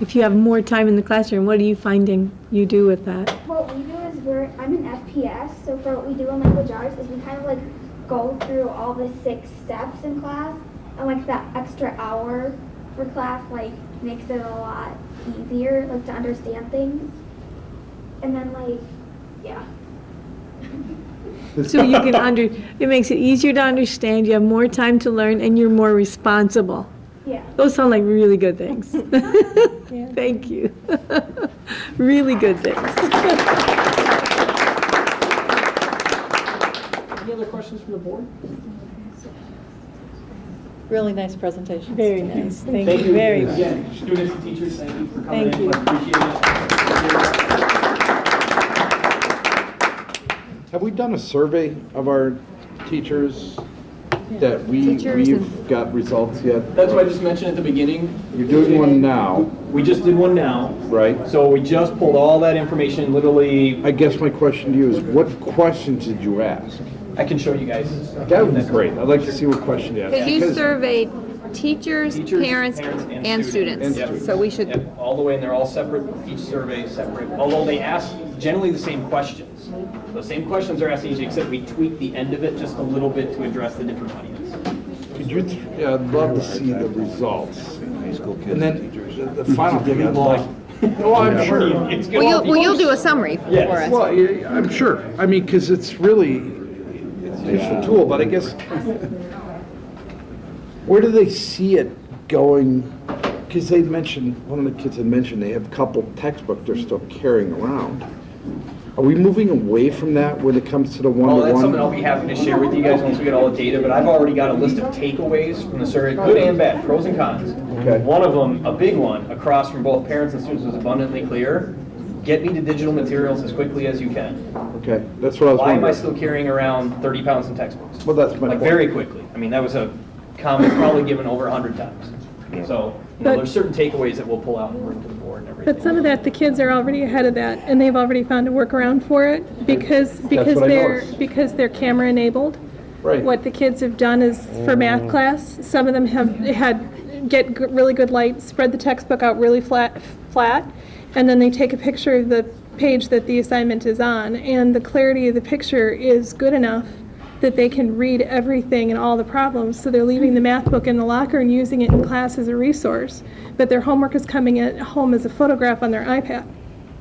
If you have more time in the classroom, what are you finding you do with that? What we do is we're I'm an FPS, so for what we do in language arts is we kind of like go through all the six steps in class, and like that extra hour for class like makes it a lot easier like to understand things, and then like yeah. So you can under, it makes it easier to understand, you have more time to learn, and you're more responsible. Yeah. Those sound like really good things. Thank you. Really good things. Any other questions from the board? Really nice presentation. Very nice, thank you very much. Again, students and teachers, thank you for coming in. Thank you. Appreciate it. Have we done a survey of our teachers that we, Teachers we've got results yet? That's what I just mentioned at the beginning. You're doing one now, We just did one now. right? So we just pulled all that information, literally, I guess my question to you is, what questions did you ask? I can show you guys. That would be great, I'd like to see what question you asked. Because you surveyed teachers, Teachers, parents, and And students. students. So we should, Yep, All the way, and they're all separate, each survey is separate, although they ask generally the same questions. The same questions are asked each, except we tweak the end of it just a little bit to address the different audience. Could you, th- yeah, I'd love to see the results. And then, the the final thing I'd like. Oh, I'm sure. It's good. well, you'll, well, you'll do a summary for Yes. us. Well, yeah, I'm sure, I mean, because it's really, it's a useful tool, but I guess, where do they see it going? Because they mentioned, one of the kids had mentioned, they have a couple textbooks they're still carrying around. Are we moving away from that when it comes to the Oh, that's something I'll one-to-one? be happy to share with you guys once we get all the data, but I've already got a list of takeaways from the survey, good and bad, pros and cons. Okay. One of them, a big one, across from both parents and students was abundantly clear. Get me to digital materials as quickly as you can. Okay, that's what I was Why am I wondering. still carrying around 30 pounds in textbooks? Well, that's my Like point. very quickly. I mean, that was a comment probably given over 100 times. So, you know, But- there's certain takeaways that we'll pull out and bring to the board and everything. But some of that, the kids are already ahead of that, and they've already found a workaround for it because, because what I they're, noticed. because they're camera enabled. Right. What the kids have done is for math class, some of them have had, get g- really good light, spread the textbook out really flat, flat, and then they take a picture of the page that the assignment is on, and the clarity of the picture is good enough that they can read everything and all the problems, so they're leaving the math book in the locker and using it in class as a resource, but their homework is coming at home as a photograph on their iPad.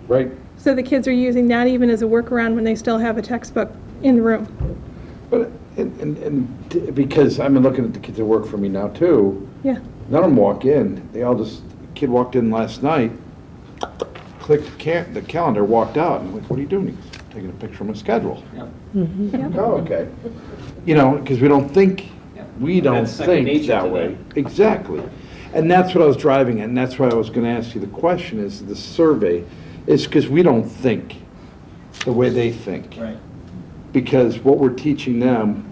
Right, So the kids are using that even as a workaround when they still have a textbook in the room. but, and, and- and, t- because I've been looking at the kids that work for me now, too. Yeah. None of them walk in. They all just, kid walked in last night, clicked the ca- the calendar, walked out, and I'm like, what are you doing? He's taking a picture of my schedule. Yeah. Oh, okay. You know, because we don't think, Yeah. we don't That's second think nature to that them. way. Exactly. And that's what I was driving at, and that's why I was gonna ask you the question, is the survey, is because we don't think the way they think. Right. Because what we're teaching them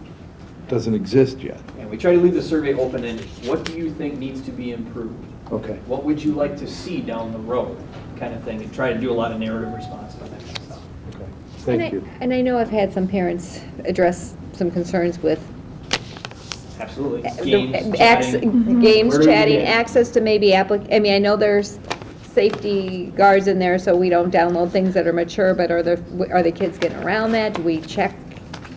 doesn't exist yet. And we try to leave the survey open-ended. What do you think needs to be improved? Okay. what would you like to see down the road, kind of thing, and try to do a lot of narrative response on that kind of stuff. okay. And Thank I- you. And I know I've had some parents address some concerns with Absolutely. Uh, Games, Ac- chatting. Games, Where do we chatting, begin? access to maybe applic, I mean, I know there's safety guards in there, so we don't download things that are mature, but are the, are the kids getting around that? Do we check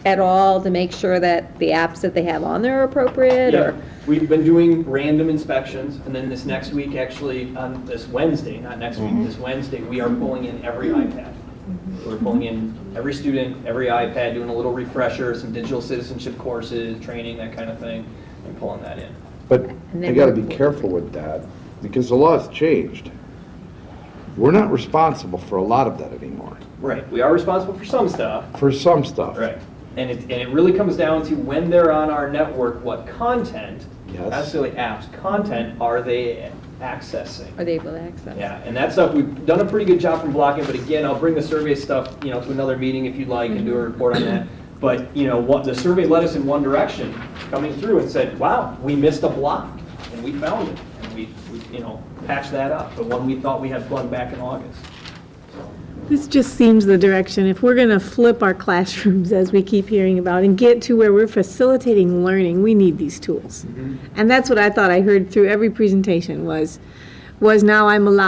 at all to make sure that the apps that they have on there are appropriate, Yeah, or? We've been doing random inspections, and then this next week, actually, on this Wednesday, not next week, this Wednesday, we are pulling in every iPad. We're pulling in every student, every iPad, doing a little refresher, some digital citizenship courses, training, that kind of thing, and pulling that in. But And they then gotta we're- be careful with that, because the law's changed. We're not responsible for a lot of that anymore, Right, we are responsible for some stuff, for some stuff. Right. And it, and it really comes down to when they're on our network, what content, not Yes. necessarily apps, content are they accessing? Are they able to access? Yeah, and that stuff, we've done a pretty good job from blocking, but again, I'll bring the survey stuff, you know, to another meeting if you'd like and do a report on that. But, you know, what, the survey led us in one direction, coming through and said, wow, we missed a block, and we found it. And we, we, you know, patched that up, the one we thought we had plugged back in August. This just seems the direction. If we're going to flip our classrooms, as we keep hearing about, and get to where we're facilitating learning, we need these tools. And that's what I thought I heard through every presentation was, was now I'm allowed